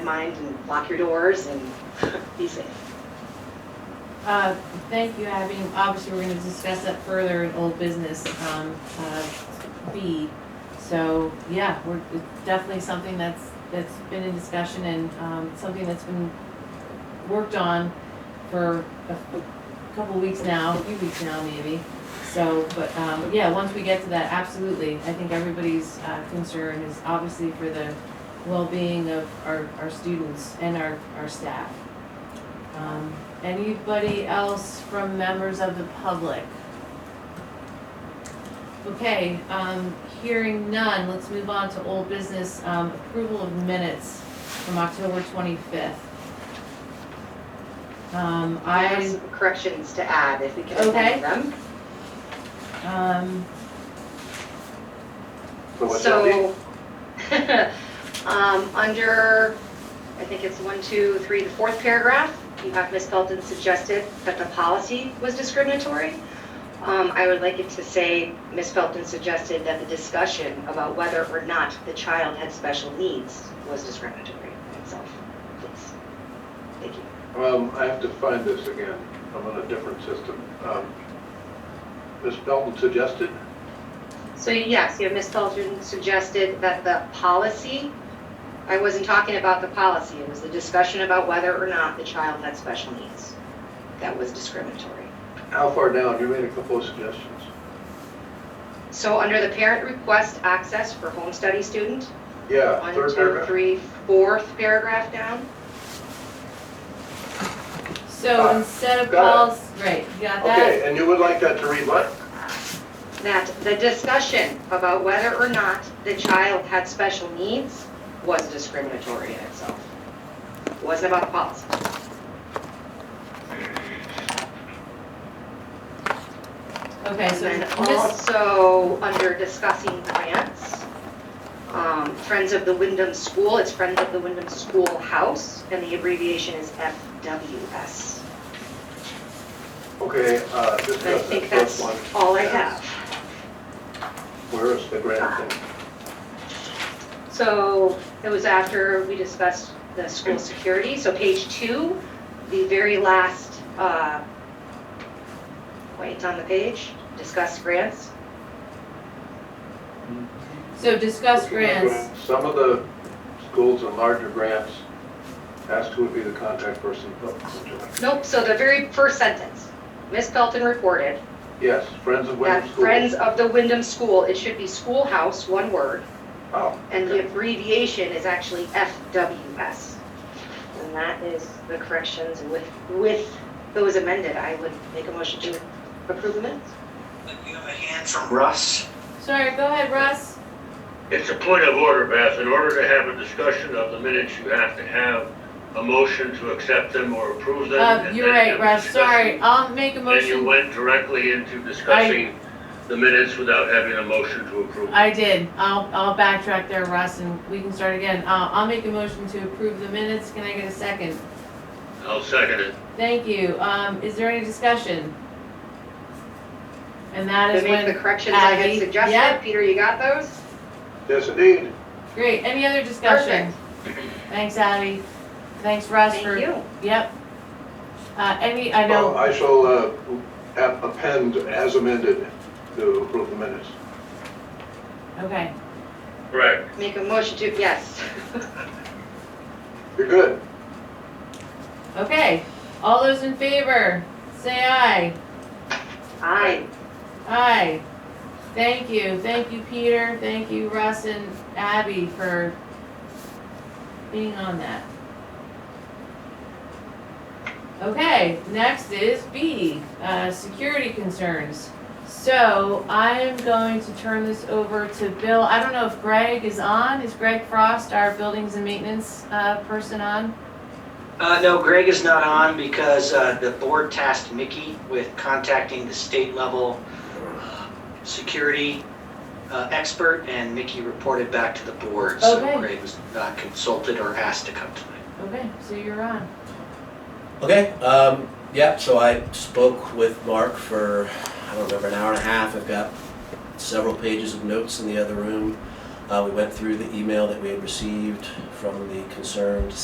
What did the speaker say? mind and lock your doors and be safe. Uh, Thank you, Abby. Obviously, we're going to discuss that further in old business um, uh, B. So, yeah, we're, it's definitely something that's, that's been in discussion and um, something that's been worked on for a a couple of weeks now, a few weeks now maybe. So, but, um, yeah, once we get to that, absolutely. I think everybody's uh, concern is obviously for the well-being of our, our students and our, our staff. Um, Anybody else from members of the public? Okay, um, hearing none, let's move on to old business, um, approval of minutes from October twenty-fifth. Um, I have I, some corrections to add if we can Okay. amend them. um, So what's that mean? So, um, under, I think it's one, two, three, the fourth paragraph, you have Ms. Belton suggested that the policy was discriminatory. Um, I would like it to say, Ms. Belton suggested that the discussion about whether or not the child had special needs was discriminatory in itself. Please. Thank you. Um, I have to find this again. I'm on a different system. Um, Ms. Belton suggested, So yes, yeah, Ms. Felton suggested that the policy, I wasn't talking about the policy, it was the discussion about whether or not the child had special needs. That was discriminatory. how far down? You made a couple of suggestions. So under the parent request access for home study student, Yeah, one, third two, paragraph. three, fourth paragraph down. so instead of got calls, right, you got that? Okay, and you would like that to read what? That the discussion about whether or not the child had special needs was discriminatory in itself. It Wasn't about the policy. Okay, so And then Miss- also, under discussing grants, um, Friends of the Wyndham School, it's Friends of the Wyndham Schoolhouse, and the abbreviation is FWS. Okay, uh, And I discuss think that that's first one. all I have. Where is the grant thing? So it was after we discussed the school security, so page two, the very last, uh, wait, on the page, discuss grants. so discuss grants. Some of the schools and larger grants ask who would be the contact person. Oh, Nope, so the very first sentence, Ms. Pelton reported, Yes, Friends of Wyndham that Schools. Friends of the Wyndham School, it should be schoolhouse, one word, Oh, and okay. the abbreviation is actually FWS. And that is the corrections with, with those amended, I would make a motion to approve the minutes. You have a hand from Russ. Sorry, go ahead, Russ. It's a point of order, Beth. In order to have a discussion of the minutes, you have to have a motion to accept them or approve them. Uh, and you're then right, have Russ, discussion. sorry, I'll make a Then you motion. went directly into discussing the minutes without having a motion to approve. I did, I'll, I'll backtrack there, Russ, and we can start again. Uh, I'll make a motion to approve the minutes, can I get a second? I'll second it. Thank you. Um, is there any discussion? And that To is make the when, corrections I Abby, had yep. suggested, Peter, you got those? Yes, indeed. great, any other discussion? Thanks, Abby. Thanks, Russ, for, Thank you. yep. Uh, any, I Well, know, I shall uh, ap- append as amended to approve the minutes. okay, Correct. Make a motion to, yes. You're good. okay. All those in favor, say aye. Aye. Aye. Thank you, thank you, Peter, thank you, Russ and Abby for being on that. Okay, next is B, uh, security concerns. So I am going to turn this over to Bill. I don't know if Greg is on. Is Greg Frost, our buildings and maintenance, uh, person on? Uh, no, Greg is not on because, uh, the board tasked Mickey with contacting the state level uh, security, uh, expert and Mickey reported back to the board. Okay. So Greg was not consulted or asked to come tonight. Okay, so you're on. Okay, um, yeah, so I spoke with Mark for, I don't remember, an hour and a half. I've got several pages of notes in the other room. Uh, we went through the email that we had received from the concerned